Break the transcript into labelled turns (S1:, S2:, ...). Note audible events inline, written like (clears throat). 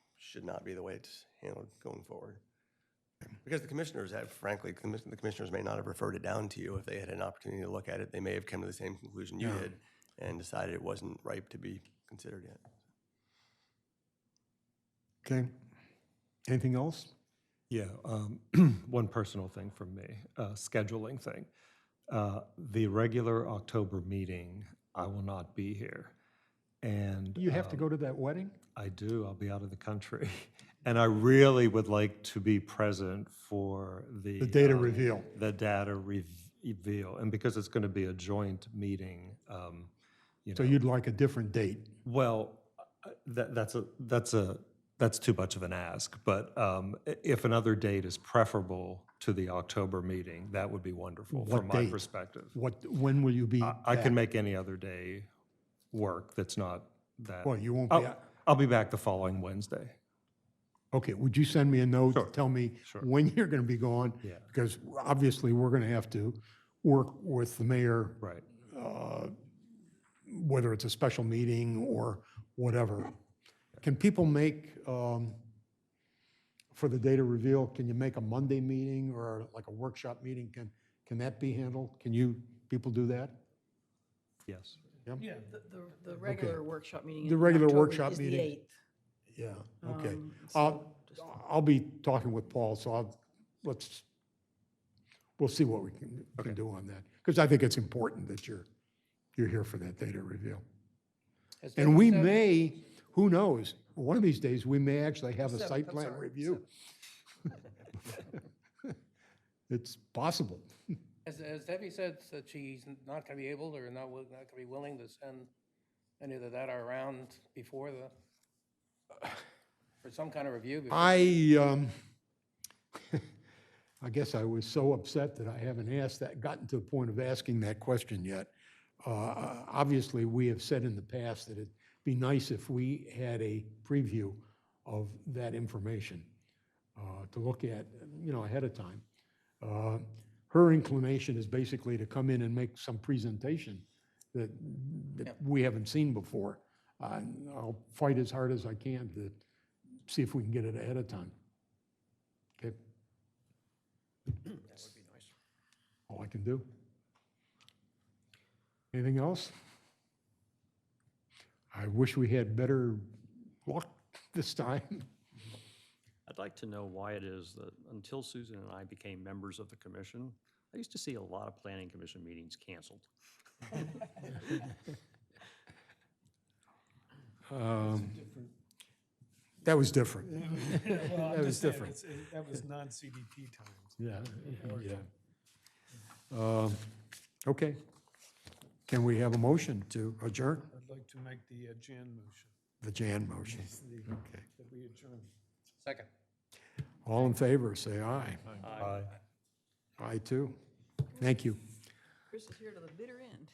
S1: should not be the way it's handled going forward. Because the commissioners have, frankly, commis- the commissioners may not have referred it down to you if they had an opportunity to look at it. They may have come to the same conclusion you did and decided it wasn't ripe to be considered yet.
S2: Okay. Anything else?
S3: Yeah, um, (clears throat) one personal thing from me, uh, scheduling thing. Uh, the regular October meeting, I will not be here. And
S2: You have to
S3: um,
S2: go to that wedding?
S3: I do. I'll be out of the country. (laughs) And I really would like to be present for the
S2: The data
S3: um,
S2: reveal.
S3: The data rev- reveal. And because it's going to be a joint meeting, um, you know.
S2: So you'd like a different date?
S3: Well, uh, that, that's a, that's a, that's too much of an ask, but um, i- if another date is preferable to the October meeting, that would be wonderful
S2: What
S3: from my
S2: date?
S3: perspective.
S2: What, when will you be?
S3: I- I can make any other day work that's not that.
S2: Well, you uh, won't be,
S3: I'll,
S2: out.
S3: I'll be back the following Wednesday.
S2: okay, would you send me a note to
S3: Sure,
S2: tell me
S3: sure.
S2: when you're going to be gone?
S3: Yeah.
S2: Because obviously, we're going to have to work with the mayor,
S3: Right.
S2: whether it's a special meeting or whatever. Can people make, um, for the data reveal, can you make a Monday meeting or like a workshop meeting? Can, can that be handled? Can you, people do that?
S3: Yes.
S4: Yeah, the, the- the regular workshop meeting.
S2: The
S4: in
S2: regular
S4: October
S2: workshop
S4: is the
S2: meeting.
S4: 8th.
S2: Yeah, okay.
S4: Um,
S2: I'll, I'll be talking with Paul, so I'll, let's, we'll see what we can, can do on that. Because I think it's important that you're, you're here for that data reveal. And we may, who knows, one of these days, we may actually have a
S4: Seventh,
S2: site
S4: I'm
S2: plan
S4: sorry,
S2: review. (laughs) It's possible.
S5: As, as Debbie said, that she's not going to be able or not, wi- not going to be willing to send any of that are around before the, for some kind of review. before-
S2: I, um, (laughs) I guess I was so upset that I haven't asked that, gotten to the point of asking that question yet. Uh, Obviously, we have said in the past that it'd be nice if we had a preview of that information uh, to look at, you know, ahead of time. Uh, Her inclination is basically to come in and make some presentation that, that we haven't seen before. Uh, I'll fight as hard as I can to see if we can get it ahead of time. Okay? That would be nice. All I can do. Anything else? I wish we had better luck this time.
S6: I'd like to know why it is that until Susan and I became members of the commission, I used to see a lot of planning commission meetings canceled.
S2: Um, That was different.
S7: Well,
S2: That
S7: I'm
S2: was
S7: just saying,
S2: different.
S7: it's- it- That was non-CDP times.
S2: Yeah, yeah. Um, Okay. Can we have a motion to adjourn?
S7: I'd like to make the uh, Jan motion,
S2: The Jan motion.
S7: that we adjourn.
S5: Second.
S2: All in favor, say aye.
S3: Aye.
S2: Aye, too. Thank you.
S4: Chris is here to the bitter end.